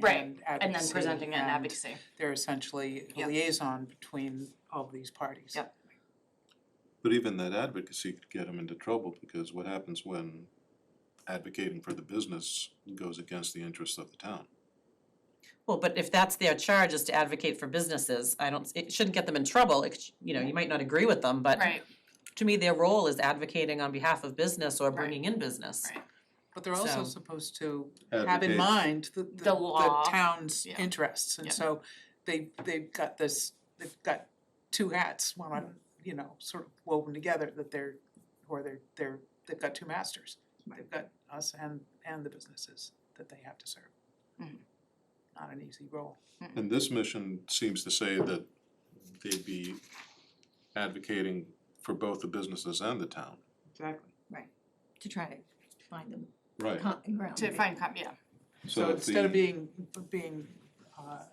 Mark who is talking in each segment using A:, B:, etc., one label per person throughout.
A: Right,
B: and advocacy.
A: and then presenting it in
B: and
A: advocacy.
B: They're essentially a
A: Yep.
B: liaison between all of these parties.
A: Yep.
C: But even that advocacy could get them into trouble because what happens when advocating for the business goes against the interests of the town?
D: Well, but if that's their charge is to advocate for businesses, I don't, it shouldn't get them in trouble, it, sh- you know, you might not agree with them, but
A: Right,
D: to me, their role is advocating on behalf of business or
A: Right.
D: bringing in business.
A: Right.
B: But they're also
D: So-
B: supposed to have in
C: Advocate-
B: mind the the the
A: law.
B: town's
A: Yeah.
B: interests, and
A: Yeah.
B: so they they've got this, they've got two hats, one on, you know, sort of woven together that they're, or they're they're, they've got two masters. They've got us and and the businesses that they have to serve.
A: Mhm.
B: Not an easy role.
C: And this mission seems to say that they'd be advocating for both the businesses and the town.
B: Exactly.
E: to try to find them
C: Right.
E: common ground.
A: to find, com- yeah,
B: So
C: So if
B: instead of
C: the,
B: being being uh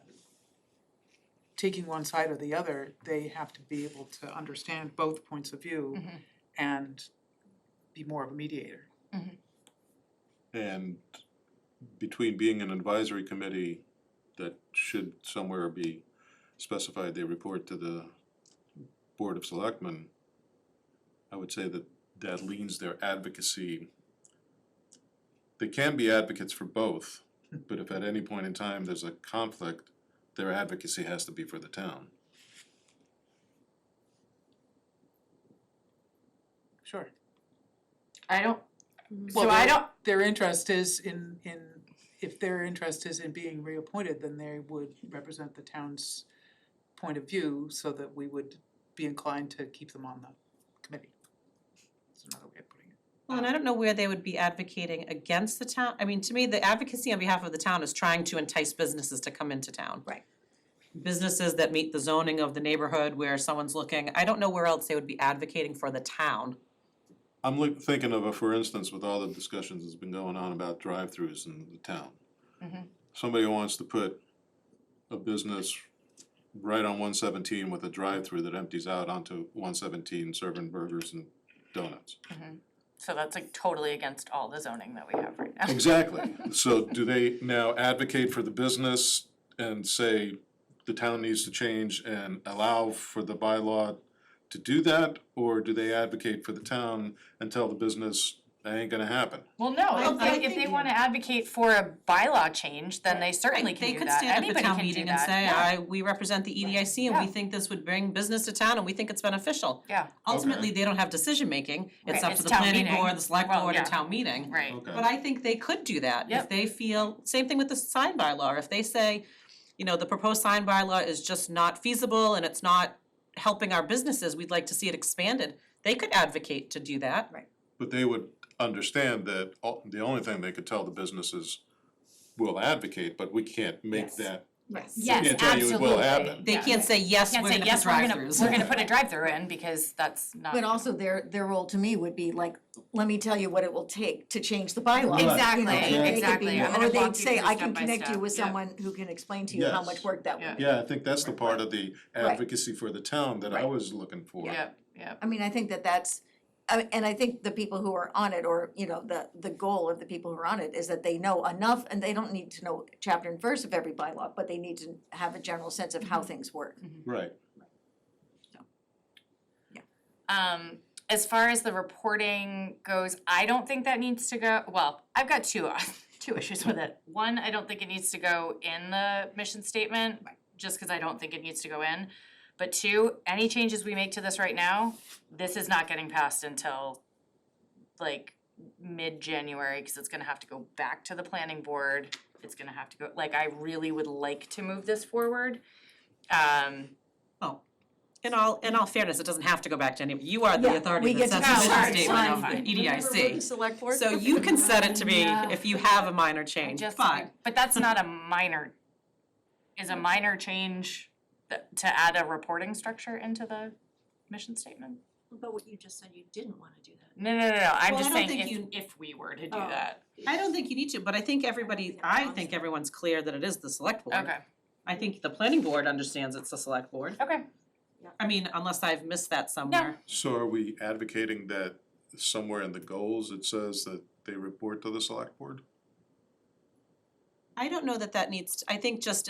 B: taking one side or the other, they have to be able to understand both points of view
A: Mhm.
B: and be more of a mediator.
C: and between being an advisory committee that should somewhere be specified, they report to the Board of Selectmen, I would say that that leans their advocacy. They can be advocates for both, but if at any point in time there's a conflict, their advocacy has to be for the town.
B: Sure.
A: I don't, so
B: Well,
A: I
B: they-
A: don't,
B: Their interest is in in if their interest is in being reappointed, then they would represent the town's point of view so that we would be inclined to keep them on the committee. That's another way of putting it.
D: Well, and I don't know where they would be advocating against the town, I mean, to me, the advocacy on behalf of the town is trying to entice businesses to come into town.
E: Right.
D: Businesses that meet the zoning of the neighborhood where someone's looking, I don't know where else they would be advocating for the town.
C: I'm look, thinking of, a for instance, with all the discussions that's been going on about drive-throughs in the town.
A: Mhm.
C: Somebody wants to put a business right on one seventeen with a drive-through that empties out onto one seventeen serving burgers and donuts.
A: so that's like totally against all the zoning that we have right now.
C: Exactly, so do they now advocate for the business and say the town needs to change and allow for the bylaw to do that? Or do they advocate for the town and tell the business, that ain't gonna happen?
A: Well, no,
D: Well,
A: if they,
D: I
A: if they
E: think-
A: wanna advocate for a bylaw change, then they certainly
D: Right,
A: can
D: they
A: do
D: could
A: that,
D: stand at the
A: anybody
D: town
A: can do
D: meeting and
A: that,
D: say,
A: yeah,
D: I, we represent the EDIC and we
A: Yeah.
D: think this would bring business to town and we think it's beneficial.
A: yeah,
D: Ultimately, they don't have decision making, it's
A: Right,
D: up
A: it's
D: to the
A: town
D: planning
A: meeting.
D: board, the select
A: Well,
D: board,
A: yeah.
D: and town meeting.
A: right,
C: Okay,
D: But I think they could do that, if
A: Yep.
D: they feel, same thing with the sign bylaw, if they say, you know, the proposed sign bylaw is just not feasible and it's not helping our businesses, we'd like to see it expanded, they could advocate to do that.
C: But they would understand that all, the only thing they could tell the businesses will advocate, but we can't make
D: Yes.
C: that,
A: yes,
C: can't
A: absolutely.
C: tell you it will happen.
D: They can't say, yes,
A: Can't
D: we're
A: say,
D: gonna put
A: yes, we're gonna,
D: drive-throughs.
A: we're gonna put a drive-through in, because that's not.
E: But also their, their role to me would be like, let me tell you what it will take to change the bylaw.
C: Right,
E: You know,
A: Exactly,
C: Exactly.
E: they could
A: exactly,
E: be-
A: I'm gonna
E: Or
A: walk you
E: they'd
A: through
E: say, I can
A: step by
E: connect you
A: step,
E: with
A: yeah,
E: someone who can explain to you how
C: Yes.
E: much work that would. be."
C: yeah, I think that's the part of the
E: Right.
C: advocacy for the town that I
E: Right.
C: was looking for.
A: yeah, yeah,
E: I mean, I think that that's, I- and I think the people who are on it, or, you know, the, the goal of the people who are on it is that they know enough, and they don't need to know chapter and verse of every bylaw, but they need to have a general sense of
A: Mm-hmm.
E: how things work.
C: Right,
A: Um, as far as the reporting goes, I don't think that needs to go, well, I've got two, uh, two issues with it. One, I don't think it needs to go in the mission statement, just cause I don't think it needs to go in. But two, any changes we make to this right now, this is not getting passed until like mid-January, cause it's gonna have to go back to the planning board. It's gonna have to go, like, I really would like to move this forward. Um,
D: Oh, in all, in all fairness, it doesn't have to go back to any, you are
E: Yeah,
D: the authority
E: we
D: that
E: get
D: sets
E: to
D: the
A: decide.
D: mission statement of E
A: Fine.
D: the EDIC.
E: Select board.
D: So you can set it to be
A: Yeah.
D: if you have a minor change,
A: just,
D: fine.
A: but that's not a minor, is a minor change th- to add a reporting structure into the mission statement?
F: But what you just said, you didn't wanna do that.
A: No, no, no, no, I'm
D: Well,
A: just
D: I
A: saying
D: don't think
A: if,
D: you-
A: if we were to do
F: Oh.
A: that,
D: I don't think you need to, but I think everybody, I think everyone's clear that it is the select board.
A: okay,
D: I think the planning board understands it's the select board.
A: okay,
D: I mean, unless I've missed that somewhere.
C: so are we advocating that somewhere in the goals it says that they report to the select board?
D: I don't know that that needs, to- I think just